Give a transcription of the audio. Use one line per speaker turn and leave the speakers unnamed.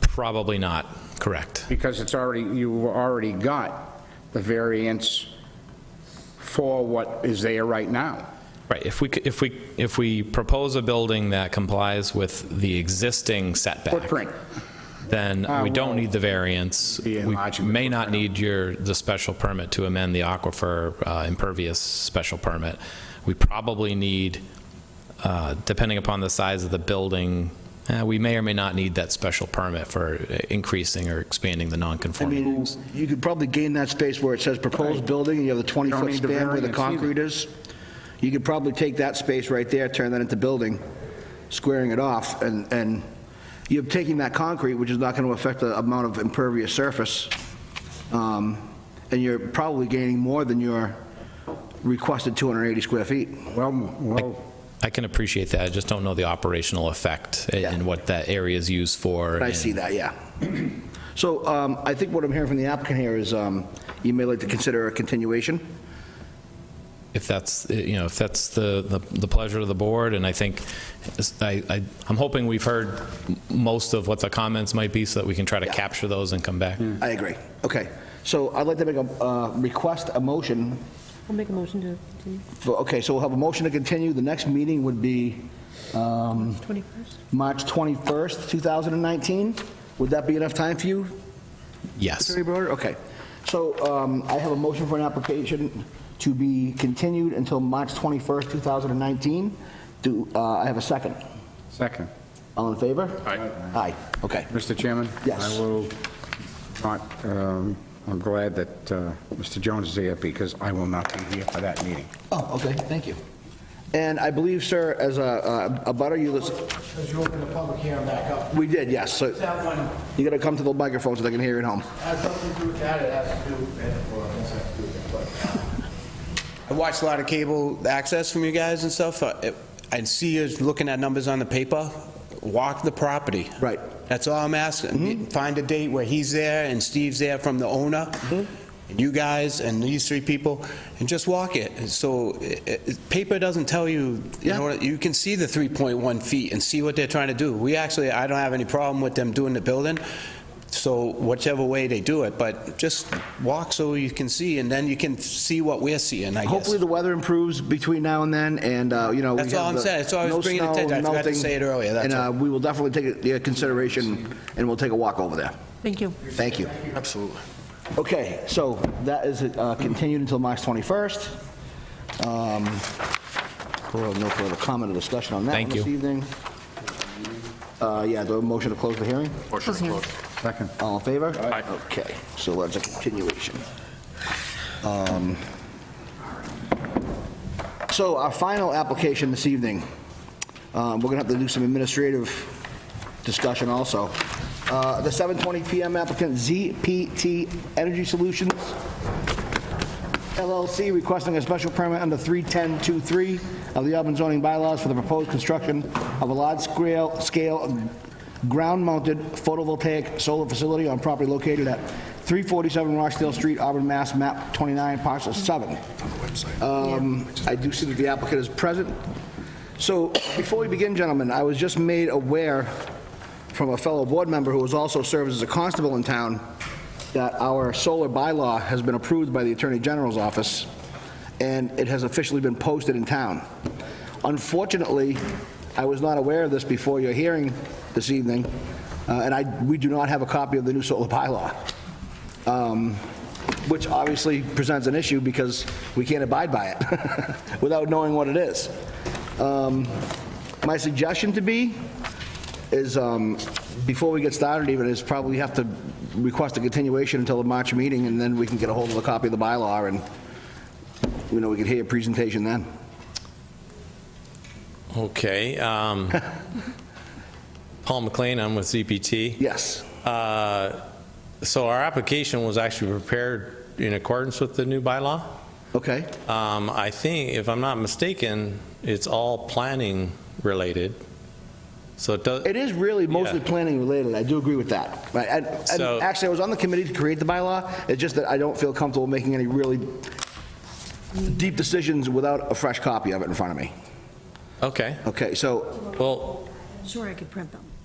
Probably not, correct.
because it's already, you already got the variance for what is there right now.
Right, if we, c- if we, if we propose a building that complies with the existing setback,
Footprint,
then
Ah,
Uh,
we don't
well,
need the variance.
the
We
enlargement
may not
footprint.
need your, the special permit to amend the aquifer uh, impervious special permit. We probably need, uh, depending upon the size of the building, eh, we may or may not need that special permit for uh, increasing or expanding the
I
nonconforming.
mean, you could probably gain that space where it says proposed building, and you have the
Don't
20-foot
need the
span where
variance
the
either.
concrete is. You could probably take that space right there, turn that into building, squaring it off, and, and you're taking that concrete, which is not going to affect the amount of impervious surface, um, and you're probably gaining more than your requested 280 square feet.
well, well,
I can appreciate that, I just don't know the operational effect and-
Yeah.
and what that area is used for.
I
and-
see that, yeah. So um, I think what I'm hearing from the applicant here is um, you may like to consider a continuation.
if that's, you know, if that's the, the the pleasure of the board, and I think, I, I- I'm hoping we've heard m- most of what the comments might be, so that we can try to capture those and come back.
I agree. Okay. So I'd like to make a, uh, request a motion
I'll make a motion to continue.
for, okay, so we'll have a motion to continue. The next meeting would be
21st?
March 21st, 2019. Would that be enough time for you,
Yes.
Attorney Broder? Okay. So um, I have a motion for an application to be continued until March 21st, 2019. Do, uh, I have a second.
second.
All in favor? Aye. Aye, okay.
Mr. Chairman?
Yes.
I will not, um, I'm glad that uh, Mr. Jones is here because I will not be here for that meeting.
Oh, okay, thank you. And I believe, sir, as a, a butter, you listen,
Because you opened the public hearing back up.
we did, yes, so
That one
you gotta come to the microphone so they can hear you at home.
has something to do with that, it has to do, with- well, it doesn't have to do with that, but. I watched a lot of cable access from you guys and stuff. uh, it- I see you looking at numbers on the paper. Walk the property.
Right.
That's all I'm asking. Find a date where he's there and Steve's there from the owner, and you guys and these three people, and just walk it. And So, i- i- paper doesn't tell you, you know, you can see the 3.1 feet and see what they're trying to do. We actually, I don't have any problem with them doing the building, so whichever way they do it, but just walk so you can see, and then you can see what we're seeing, I guess.
Hopefully, the weather improves between now and then, and, uh, you know, we have
That's all I'm
the-
saying. That's all I was
no
bringing
snow,
attention. I forgot to
melting,
say it earlier, that's
And uh,
all.
we will definitely take it into consideration, and we'll take a walk over there.
Thank you.
Thank you. Absolutely. Okay, so that is uh, continued until March 21st. Um, We'll have no further comment or discussion on that one
Thank
this
you.
evening. Uh, Yeah, the motion to close the hearing?
Second.
All in favor? Okay, so that's a continuation. Um, So our final application this evening, um, we're going to have to do some administrative discussion also. Uh, The 7:20 PM applicant ZPT Energy Solutions LLC requesting a special permit under 31023 of the Auburn zoning bylaws for the proposed construction of a large-scale scale ground-mounted photovoltaic solar facility on property located at 347 Rochdale Street, Auburn, Mass., map 29, parcel 7. Um, I do see that the applicant is present. So before we begin, gentlemen, I was just made aware from a fellow board member who has also served as a constable in town that our solar bylaw has been approved by the Attorney General's office, and it has officially been posted in town. Unfortunately, I was not aware of this before your hearing this evening, uh, and I, we do not have a copy of the new solar bylaw, um, which obviously presents an issue because we can't abide by it without knowing what it is. Um, My suggestion to be is, um, before we get started even, is probably have to request a continuation until the March meeting, and then we can get a hold of a copy of the bylaw, and, you know, we can hear your presentation then.
Okay. um, Paul McLean, I'm with ZPT.
Yes.
Uh, So our application was actually prepared in accordance with the new bylaw.
Okay.
Um, I think, if I'm not mistaken, it's all planning related, so it does.
It is really mostly
Yeah.
planning related, I do agree with that. Right, and, and
So-
actually, I was on the committee to create the bylaw, it's just that I don't feel comfortable making any really deep decisions without a fresh copy of it in front of me.
Okay,
Okay, so,
well,
Sure, I could print them.